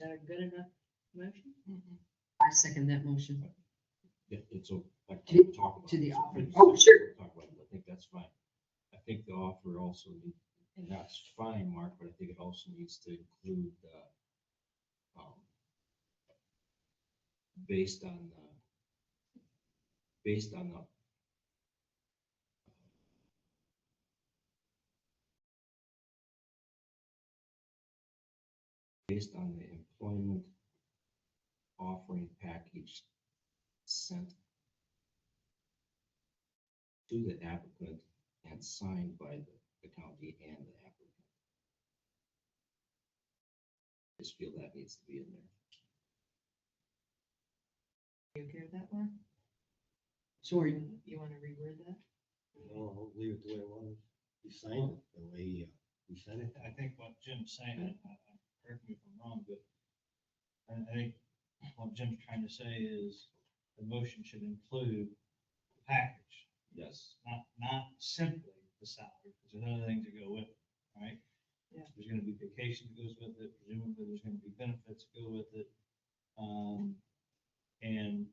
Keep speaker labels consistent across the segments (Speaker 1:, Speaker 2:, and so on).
Speaker 1: that a good enough motion? I second that motion.
Speaker 2: Yeah, it's a, I
Speaker 1: To-
Speaker 2: can't talk about.
Speaker 1: to the
Speaker 2: this,
Speaker 1: offer.
Speaker 2: but
Speaker 1: Oh, sure.
Speaker 2: talk about it, I think that's fine. I think the offer also, need- and that's fine, Mark, but I think it also needs to include, uh, um, based on, uh, based on the based on the employment offering package sent to the applicant and signed by the, the county and the applicant. Just feel that needs to be in there.
Speaker 1: You okay with that one? Sure, you, you wanna reword that?
Speaker 3: No, I'll leave it the way it was. He signed it the way uh, he sent it.
Speaker 4: I think what Jim's saying, and I- I- correct me if I'm wrong, but I I think what Jim's trying to say is the motion should include the package,
Speaker 2: Yes.
Speaker 4: not, not simply the salary, because there's other things that go with it, right?
Speaker 1: Yeah.
Speaker 4: There's gonna be vacation that goes with it, presumably there's gonna be benefits that go with it. Um, and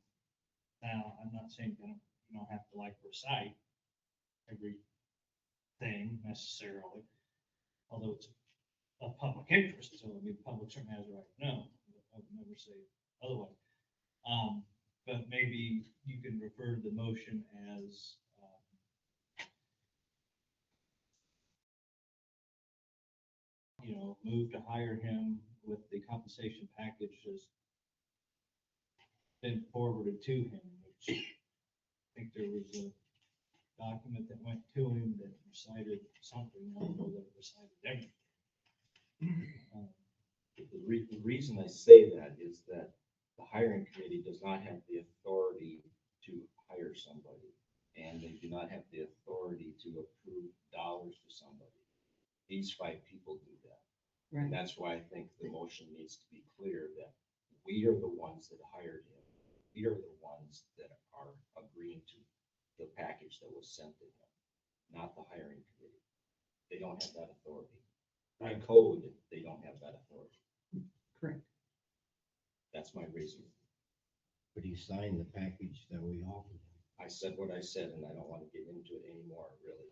Speaker 4: now, I'm not saying you don't, you don't have to like recite every thing necessarily, although it's of public interest, so I mean, public certainly has a right to know, I would never say otherwise. Um, but maybe you can refer to the motion as, um, you know, move to hire him with the compensation package has been forwarded to him, which I think there was a document that went to him that recited something, I don't know that it recited everything. Um,
Speaker 2: The re- the reason I say that is that the hiring committee does not have the authority to hire somebody. And they do not have the authority to approve dollars to somebody. These five people do that. And
Speaker 1: Right,
Speaker 2: that's why I think the motion needs to be clear that we are the ones that hired him. We are the ones that are agreeing to the package that was sent to him, not the hiring committee. They don't have that authority. By code, they don't have that authority.
Speaker 1: correct.
Speaker 2: That's my reason.
Speaker 3: But he signed the package that we offered him.
Speaker 2: I said what I said and I don't want to get into it anymore, really.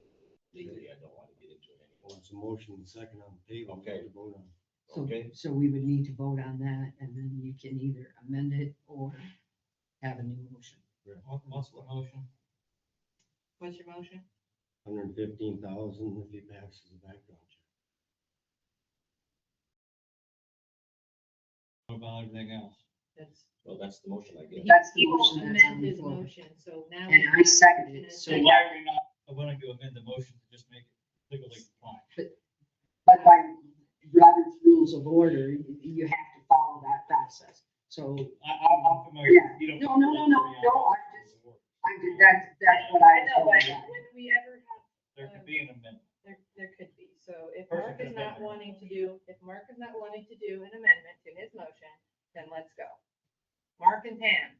Speaker 2: Legally, I don't want to get into it anymore.
Speaker 3: Well, it's a motion and second on the table. we have
Speaker 2: Okay.
Speaker 3: to vote on it.
Speaker 1: So,
Speaker 2: Okay.
Speaker 1: so we would need to vote on that and then you can either amend it or have a new motion.
Speaker 4: what- What's the motion?
Speaker 1: What's your motion?
Speaker 3: Hundred and fifteen thousand if he passes the background check.
Speaker 4: What about everything else?
Speaker 5: That's,
Speaker 2: Well, that's the motion I gave.
Speaker 1: That's the
Speaker 5: he will
Speaker 1: motion that's on
Speaker 5: amend
Speaker 1: the
Speaker 5: his
Speaker 1: floor.
Speaker 5: motion, so now.
Speaker 1: And I second it, so,
Speaker 4: So why are we not, I want to amend the motion to just make it legally compliant.
Speaker 1: but by Robert's rules of order, you, you have to follow that process. So
Speaker 4: I, I- I'm familiar, you don't.
Speaker 1: No, no, no, no, no, I just- I did, that's, that's what
Speaker 5: I
Speaker 1: I.
Speaker 5: know, but
Speaker 4: Yeah.
Speaker 5: when we ever have,
Speaker 4: There could be an amendment.
Speaker 5: there, there could be, so if
Speaker 4: Person
Speaker 5: Mark
Speaker 4: can
Speaker 5: is not
Speaker 4: amend their
Speaker 5: wanting to do,
Speaker 4: motion.
Speaker 5: if Mark is not wanting to do an amendment in his motion, then let's go. Mark and Pam.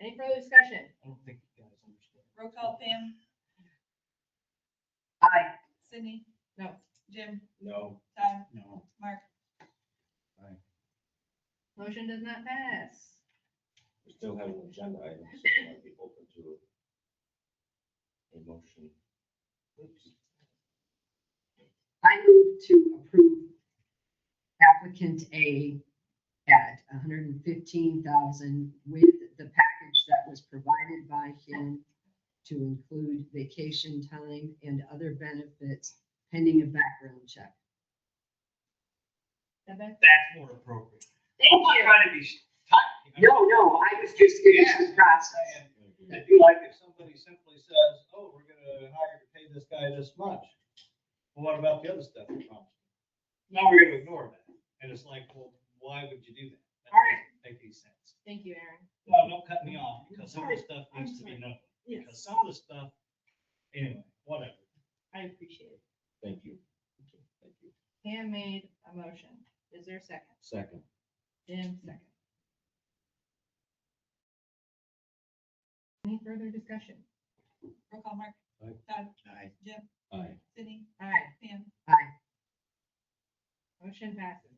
Speaker 5: Any further discussion?
Speaker 4: I don't think you guys understand.
Speaker 6: Roll call Pam,
Speaker 1: Aye.
Speaker 6: Sydney,
Speaker 5: No,
Speaker 6: Jim,
Speaker 2: No,
Speaker 6: Todd,
Speaker 4: No.
Speaker 6: Mark.
Speaker 5: motion does not pass.
Speaker 2: we still have an agenda item, so I might be open to a motion.
Speaker 1: I move to approve applicant A at hundred and fifteen thousand with the package that was provided by him to include vacation time and other benefits pending a background check.
Speaker 5: And then-
Speaker 4: That's more appropriate.
Speaker 1: Thank
Speaker 4: I'm
Speaker 1: you.
Speaker 4: trying to be tight.
Speaker 1: No, no, I was just getting through the process.
Speaker 4: It'd be like if somebody simply says, oh, we're gonna hire to pay this guy this much. Well, what about the other stuff we promised? Now we're gonna ignore that. And it's like, well, why would you do that? That doesn't make any sense.
Speaker 5: Thank you, Aaron.
Speaker 4: Well, don't cut me off because some of the stuff
Speaker 5: I'm
Speaker 4: needs to be known. Because
Speaker 5: Yes,
Speaker 4: some of the stuff, anyway, whatever.
Speaker 5: I appreciate it.
Speaker 2: Thank you. Thank you.
Speaker 5: Pam made a motion. Is there a second?
Speaker 2: Second,
Speaker 5: Jim, second. Any further discussion?
Speaker 6: Roll call Mark,
Speaker 3: Aye.
Speaker 6: Todd,
Speaker 3: Aye.
Speaker 2: aye.
Speaker 6: Sydney,
Speaker 5: Aye.
Speaker 6: Pam.
Speaker 5: Aye. Motion passes.